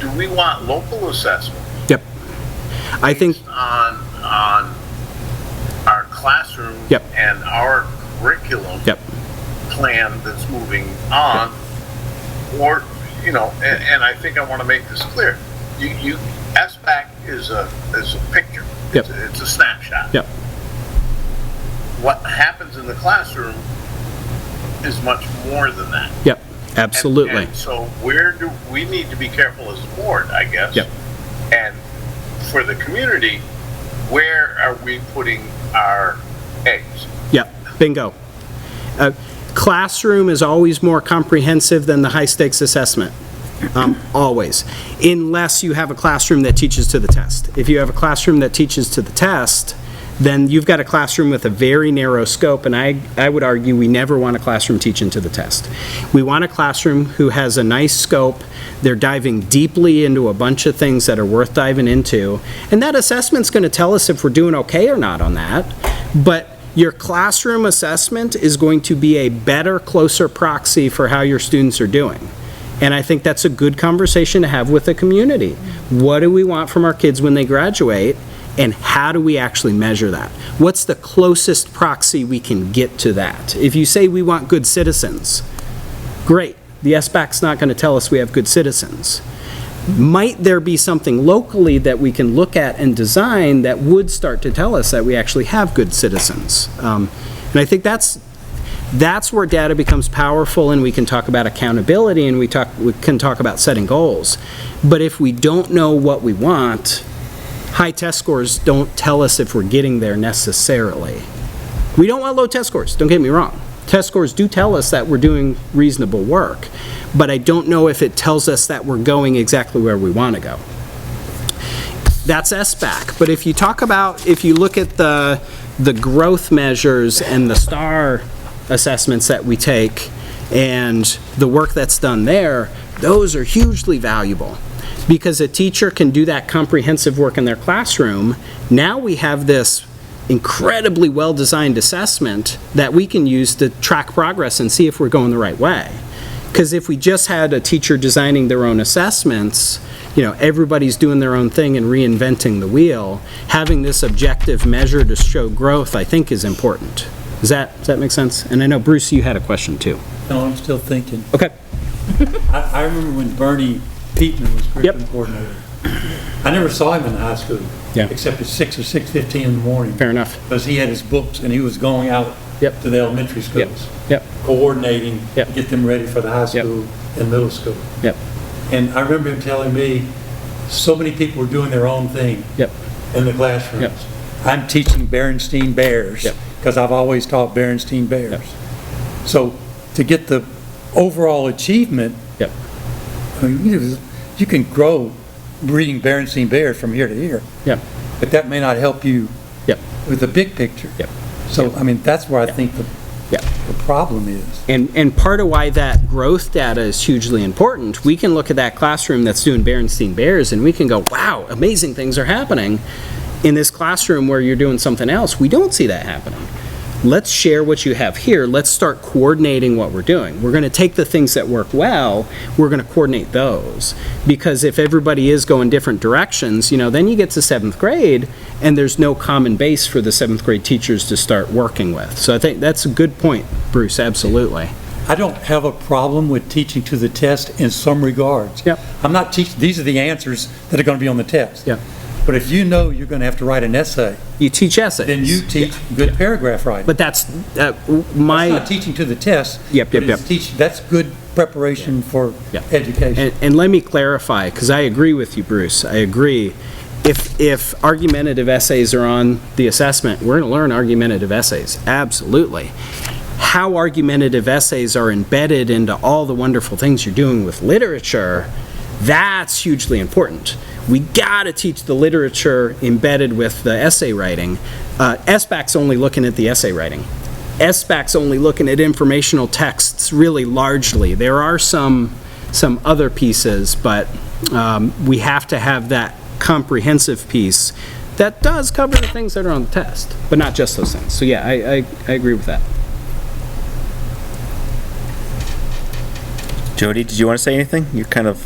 and we want local assessment Yep. I think, on, on our classroom Yep. and our curriculum yep, plan that's moving on, or, you know, and, and I think I want to make this clear. You, you, SBAC is a, is a picture. Yep. It's a- It's a snapshot. yep, What happens in the classroom is much more than that. And- yep, absolutely. and So where do, we need to be careful as a board, I guess. Yep. And for the community, where are we putting our eggs? Yep, bingo. Uh, Classroom is always more comprehensive than the high-stakes assessment, um, always, unless you have a classroom that teaches to the test. If you have a classroom that teaches to the test, then you've got a classroom with a very narrow scope, and I, I would argue we never want a classroom teaching to the test. We want a classroom who has a nice scope, they're diving deeply into a bunch of things that are worth diving into, and that assessment's going to tell us if we're doing okay or not on that, but your classroom assessment is going to be a better, closer proxy for how your students are doing. And I think that's a good conversation to have with the community. What do we want from our kids when they graduate? And how do we actually measure that? What's the closest proxy we can get to that? If you say we want good citizens, great. The SBAC's not going to tell us we have good citizens might there be something locally that we can look at and design that would start to tell us that we actually have good citizens? Um, And I think that's, that's where data becomes powerful, and we can talk about accountability, and we talk, we can talk about setting goals. But if we don't know what we want, high test scores don't tell us if we're getting there necessarily. We don't want low test scores, don't get me wrong. Test scores do tell us that we're doing reasonable work, but I don't know if it tells us that we're going exactly where we want to go. That's SBAC, but if you talk about, if you look at the, the growth measures and the STAR assessments that we take and the work that's done there, those are hugely valuable because a teacher can do that comprehensive work in their classroom. Now we have this incredibly well-designed assessment that we can use to track progress and see if we're going the right way. Because if we just had a teacher designing their own assessments, you know, everybody's doing their own thing and reinventing the wheel, having this objective measure to show growth, I think, is important. Does that, does that make sense? And I know, Bruce, you had a question too. No, I'm still thinking. Okay. I, I remember when Bernie Peetman was curriculum coordinator. I never saw him in high school. Yeah. Except at six or six fifteen in the morning. Fair enough. Because he had his books and he was going out Yep. to the elementary Yep, schools. yep, Coordinating. Yep. Get them ready for the high Yep. school and middle school. yep, And I remember him telling me, so many people were doing their own thing yep, in the classrooms. Yep. I'm teaching Berenstain Bears Yep. because I've always taught Berenstain Bears. So to get the overall achievement, Yep. I mean, you know, you can grow reading Berenstain Bears from here to here, yep, but that may not help you Yep. with the big picture. Yep. So, I mean, that's where I think the yep. the problem is. And, and part of why that growth data is hugely important, we can look at that classroom that's doing Berenstein Bears and we can go, wow, amazing things are happening. In this classroom where you're doing something else, we don't see that happening. Let's share what you have here. Let's start coordinating what we're doing. We're going to take the things that work well, we're going to coordinate those. Because if everybody is going different directions, you know, then you get to seventh grade and there's no common base for the seventh grade teachers to start working with. So I think that's a good point, Bruce, absolutely. I don't have a problem with teaching to the test in some regards. Yep. I'm not teaching, these are the answers that are going to be on the test. Yep. But if you know you're going to have to write an essay, You teach essays. then you teach good paragraph writing. But that's, uh, That's my, not teaching to the test. Yep, but yep, yep. it's teach- that's good preparation for Yeah. education. and, and let me clarify, because I agree with you, Bruce, I agree. If, if argumentative essays are on the assessment, we're going to learn argumentative essays, absolutely. How argumentative essays are embedded into all the wonderful things you're doing with literature, that's hugely important. We got to teach the literature embedded with the essay writing. Uh, SBAC's only looking at the essay writing. SBAC's only looking at informational texts really largely. There are some, some other pieces, but um, we have to have that comprehensive piece that does cover the things that are on the test, but not just those things. So yeah, I, I, I agree with that. Jody, did you want to say anything? You're kind of